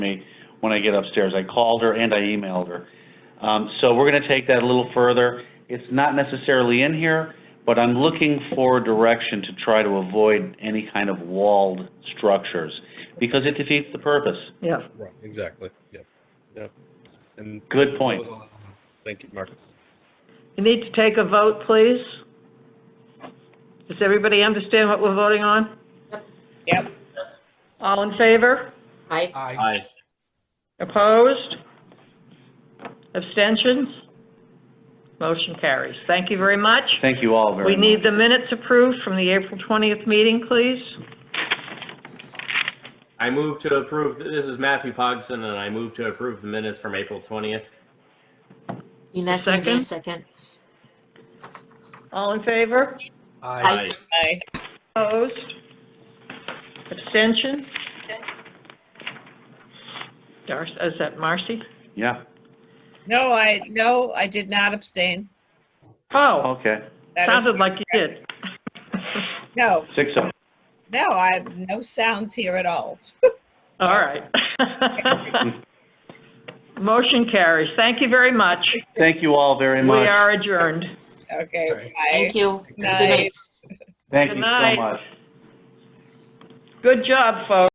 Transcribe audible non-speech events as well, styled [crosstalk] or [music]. when I get upstairs. I called her and I emailed her. Um, so we're gonna take that a little further. It's not necessarily in here, but I'm looking for direction to try to avoid any kind of walled structures, because it defeats the purpose. yeah. Right, exactly, yep, yep. And Good point. Thank you, Mark. You need to take a vote, please. Does everybody understand what we're voting on? Yep. All in favor? Aye. Aye. Opposed? Abstentions? Motion carries. Thank you very much. Thank you all very We much. need the minutes approved from the April 20th meeting, please. I move to approve, this is Matthew Pogson, and I move to approve the minutes from April 20th. Ines and Dave, second. All in favor? Aye. Aye. Opposed? Abstention? Dar, is that Marcy? Yeah, No, I, no, I did not abstain. Oh, okay, That is- sounded like you did. No, six oh. no, I have no sounds here at all. [laughs] All right. Motion carries. Thank you very much. Thank you all very We much. are adjourned. Okay, Thank bye. you. Night. Thank Good you so night. much. Good job, folks.